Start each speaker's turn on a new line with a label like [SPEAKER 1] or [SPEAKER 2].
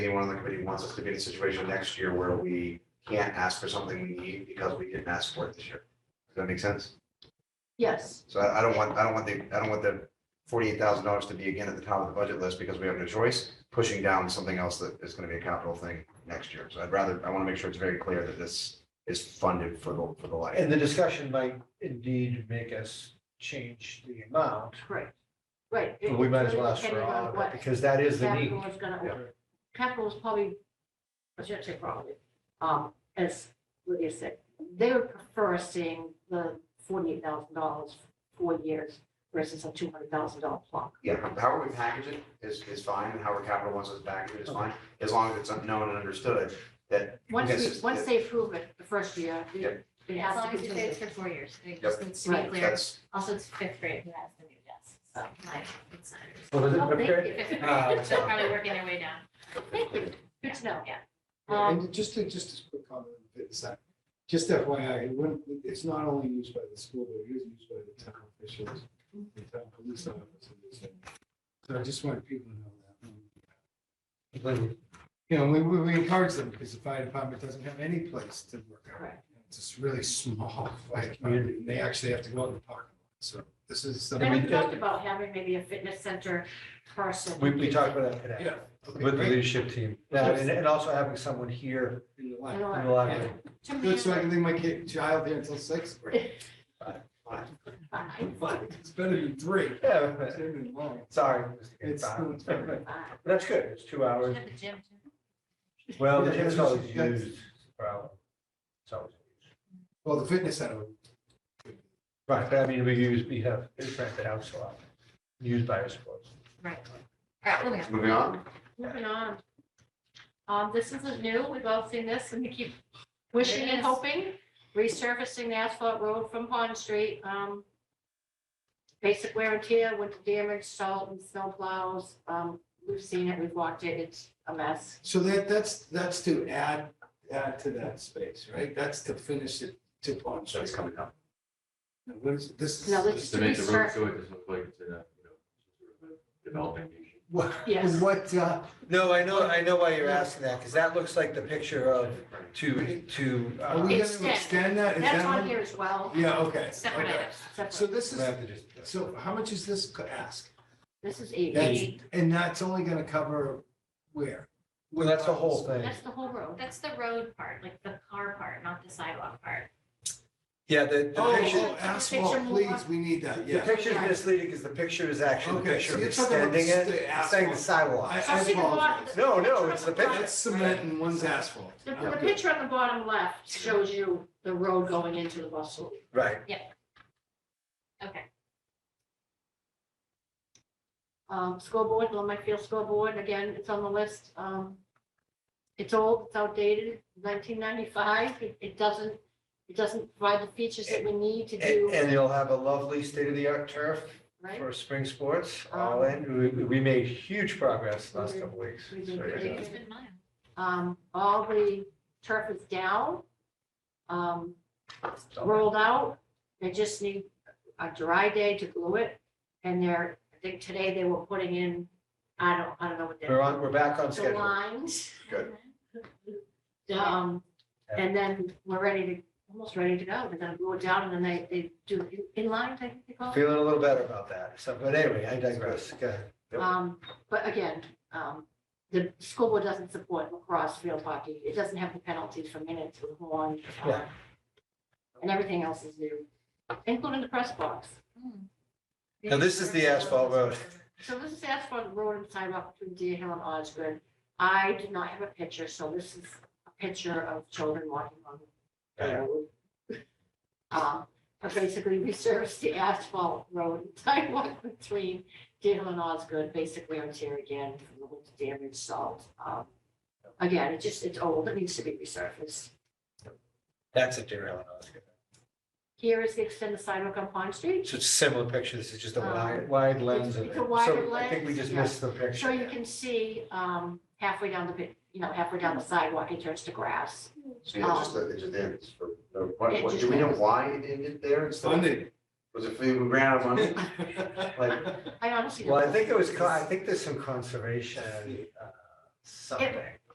[SPEAKER 1] anyone on the committee wants us to be in a situation next year where we can't ask for something we need because we didn't ask for it this year. Does that make sense?
[SPEAKER 2] Yes,
[SPEAKER 1] So I I don't want, I don't want the, I don't want the forty-eight thousand dollars to be again at the top of the budget list because we have no choice, pushing down something else that is gonna be a capital thing next year. So I'd rather, I wanna make sure it's very clear that this is funded for the, for the life.
[SPEAKER 3] And the discussion might indeed make us change the amount,
[SPEAKER 2] right, right.
[SPEAKER 3] but we might as well ask for all of it, because that is the need.
[SPEAKER 2] Capital is gonna, capital is probably, I shouldn't say probably, um, as Lydia said, they would prefer seeing the forty-eight thousand dollars, four years versus a two hundred thousand dollar clock.
[SPEAKER 1] Yeah, however we package it is, is fine, and however capital wants us to package it is fine, as long as it's known and understood that.
[SPEAKER 2] Once
[SPEAKER 1] Yes,
[SPEAKER 2] we, once
[SPEAKER 1] yeah.
[SPEAKER 2] they approve it the first year, we-
[SPEAKER 1] Yep.
[SPEAKER 2] it
[SPEAKER 4] As
[SPEAKER 2] has to
[SPEAKER 4] long as you say
[SPEAKER 2] continue.
[SPEAKER 4] it's for four years, I think just needs to be
[SPEAKER 2] Right.
[SPEAKER 4] clear.
[SPEAKER 1] That's,
[SPEAKER 4] Also, it's fifth grade who has the new desk, so like, it's not.
[SPEAKER 3] Well, is it
[SPEAKER 2] Oh, thank
[SPEAKER 3] prepared?
[SPEAKER 2] you.
[SPEAKER 4] Fifth grade,
[SPEAKER 3] Uh,
[SPEAKER 4] they're probably working their way down.
[SPEAKER 2] Thank you, good to know.
[SPEAKER 4] Yeah.
[SPEAKER 5] Yeah,
[SPEAKER 2] Um,
[SPEAKER 5] And just a, just a quick comment, on the fitness act. just FYI, it wouldn't, it's not only used by the school, but it is used by the town officials, the town police officers. So I just want people to know that. But, You know, we, we, we encourage them because the fire department doesn't have any place to work out.
[SPEAKER 2] Correct.
[SPEAKER 5] It's just really small, like, and they actually have to go out in the parking lot, so this is something.
[SPEAKER 2] and we talked about having maybe a fitness center person.
[SPEAKER 3] We, we talked about that today.
[SPEAKER 5] Yeah. okay,
[SPEAKER 6] With the
[SPEAKER 5] great.
[SPEAKER 6] leadership team.
[SPEAKER 3] Now, and, and also having someone here
[SPEAKER 5] In the
[SPEAKER 2] You
[SPEAKER 5] line.
[SPEAKER 2] know
[SPEAKER 3] in
[SPEAKER 2] what?
[SPEAKER 3] the library.
[SPEAKER 2] To me,
[SPEAKER 5] Good, so I can leave my kid, child here until six.
[SPEAKER 2] fine,
[SPEAKER 5] It's better than three.
[SPEAKER 3] Yeah,
[SPEAKER 5] It's better than long.
[SPEAKER 3] sorry. Mr.
[SPEAKER 5] It's-
[SPEAKER 3] Gaetano. But
[SPEAKER 2] fine.
[SPEAKER 3] That's good, it's two hours.
[SPEAKER 4] Should have the gym too.
[SPEAKER 3] Well, the
[SPEAKER 5] Yeah,
[SPEAKER 3] gym's
[SPEAKER 5] that's-
[SPEAKER 3] always
[SPEAKER 5] that's-
[SPEAKER 3] used, probably. It's always used.
[SPEAKER 5] Well, the fitness center,
[SPEAKER 3] Right, but I mean, we use, we have, it's rented out so often, used by our sports.
[SPEAKER 4] Right. All right, moving on.
[SPEAKER 1] moving on.
[SPEAKER 2] Moving on. Um, this isn't new. We've all seen this and we keep wishing and hoping, resurfacing the asphalt road from Pond Street. Um, basic wear and tear, winter damage, salt and snow plows. Um, we've seen it, we've walked it, it's a mess.
[SPEAKER 5] so that, that's, that's to add, add to that space, right? That's to finish it to Pond
[SPEAKER 1] So it's
[SPEAKER 5] Street.
[SPEAKER 1] coming up.
[SPEAKER 5] Now, what is- This
[SPEAKER 2] No,
[SPEAKER 5] is,
[SPEAKER 2] this-
[SPEAKER 7] Just to make the road so it doesn't look like it's in a, you know, sort of a developing nation.
[SPEAKER 5] what,
[SPEAKER 2] Yes.
[SPEAKER 5] what, uh,
[SPEAKER 3] No, I know, I know why you're asking that, because that looks like the picture of to, to. uh,
[SPEAKER 5] are we
[SPEAKER 2] Extend.
[SPEAKER 5] gonna extend that? Is
[SPEAKER 2] That's
[SPEAKER 5] that
[SPEAKER 2] on
[SPEAKER 5] one-
[SPEAKER 2] here as well.
[SPEAKER 5] Yeah, okay,
[SPEAKER 4] Separate
[SPEAKER 5] okay.
[SPEAKER 4] items.
[SPEAKER 2] separate.
[SPEAKER 5] So this
[SPEAKER 3] we
[SPEAKER 5] is,
[SPEAKER 3] have to just-
[SPEAKER 5] so how much is this co- ask?
[SPEAKER 2] This is eight.
[SPEAKER 5] That's, and that's only gonna cover where?
[SPEAKER 3] Well, that's the whole thing.
[SPEAKER 2] That's the whole road.
[SPEAKER 4] That's the road part, like the car part, not the sidewalk part.
[SPEAKER 3] Yeah, the, the
[SPEAKER 5] Oh,
[SPEAKER 3] picture,
[SPEAKER 5] oh, asphalt, please, we need that,
[SPEAKER 3] the
[SPEAKER 5] yeah.
[SPEAKER 3] picture's misleading because the picture is actually the
[SPEAKER 5] Okay,
[SPEAKER 3] picture
[SPEAKER 5] so
[SPEAKER 3] of
[SPEAKER 5] you're talking about
[SPEAKER 3] extending
[SPEAKER 5] the
[SPEAKER 3] it, it's saying the
[SPEAKER 5] asphalt.
[SPEAKER 3] sidewalk.
[SPEAKER 5] I
[SPEAKER 2] So
[SPEAKER 5] I
[SPEAKER 2] see the lot-
[SPEAKER 5] apologize.
[SPEAKER 3] No, no, it's the picture.
[SPEAKER 5] That's cement and one's asphalt.
[SPEAKER 2] The, the picture on the bottom left shows you the road going into the bustle.
[SPEAKER 3] Right,
[SPEAKER 4] Okay,
[SPEAKER 2] Um, scoreboard, Longmont Field board. again, it's on the list. Um, it's old, it's outdated, nineteen ninety-five. It, it doesn't, it doesn't provide the features that we need to
[SPEAKER 3] and,
[SPEAKER 2] do,
[SPEAKER 3] and you'll have a lovely state-of-the-art turf
[SPEAKER 2] right?
[SPEAKER 3] for spring sports,
[SPEAKER 5] Um,
[SPEAKER 3] all in, we, we made huge progress last couple weeks.
[SPEAKER 2] We
[SPEAKER 3] So,
[SPEAKER 2] did
[SPEAKER 3] yeah.
[SPEAKER 2] great.
[SPEAKER 4] it's been mine.
[SPEAKER 2] Um, all the turf is down. Um,
[SPEAKER 3] So-
[SPEAKER 2] rolled out. They just need a dry day to glue it. And they're, I think today they were putting in, I don't, I don't know what they're.
[SPEAKER 3] We're on, we're back on
[SPEAKER 2] The
[SPEAKER 3] schedule.
[SPEAKER 2] lines.
[SPEAKER 1] Good.
[SPEAKER 2] Um, and then we're ready to, almost ready to go. They're gonna glue it down and then they, they do in- inline, I think they call it.
[SPEAKER 3] Feeling a little better about that, so, but anyway, I digress, go ahead. Yep.
[SPEAKER 2] Um, but again, um, the school board doesn't support lacrosse field hockey. It doesn't have the penalties for minutes with one.
[SPEAKER 3] Yeah.
[SPEAKER 2] And everything else is new, including the press box.
[SPEAKER 4] Hmm.
[SPEAKER 3] Now, this is the asphalt road.
[SPEAKER 2] So this is asphalt road and sidewalk between Deer Hill and Osgood. I did not have a picture, so this is a picture of children walking on the road. Um, But basically, we service the asphalt road and sidewalk between Deer Hill and Osgood, basically on tear again, from the winter damage, salt. Um, Again, it just, it's old, it needs to be resurfaced.
[SPEAKER 3] That's a derail.
[SPEAKER 2] Here is the extended sidewalk on Pond Street.
[SPEAKER 3] So it's a similar picture, this is just a
[SPEAKER 2] Um,
[SPEAKER 3] wide, wide lens of it.
[SPEAKER 2] it's a wider
[SPEAKER 3] So I think we
[SPEAKER 2] lens,
[SPEAKER 3] just
[SPEAKER 2] yeah.
[SPEAKER 3] missed the picture.
[SPEAKER 2] So you can see um, halfway down the, bit- you know, halfway down the sidewalk, it turns to grass.
[SPEAKER 1] So yeah, just, it just ends for, no- what,
[SPEAKER 2] It
[SPEAKER 1] what,
[SPEAKER 2] just
[SPEAKER 1] do we know
[SPEAKER 2] ends.
[SPEAKER 1] why it ended there instead? of-
[SPEAKER 5] Funded.
[SPEAKER 1] Was it, we ran out of money? Like,
[SPEAKER 2] I honestly.
[SPEAKER 3] Well, I
[SPEAKER 2] don't-
[SPEAKER 3] think it was, con- I think there's some conservation, uh, something.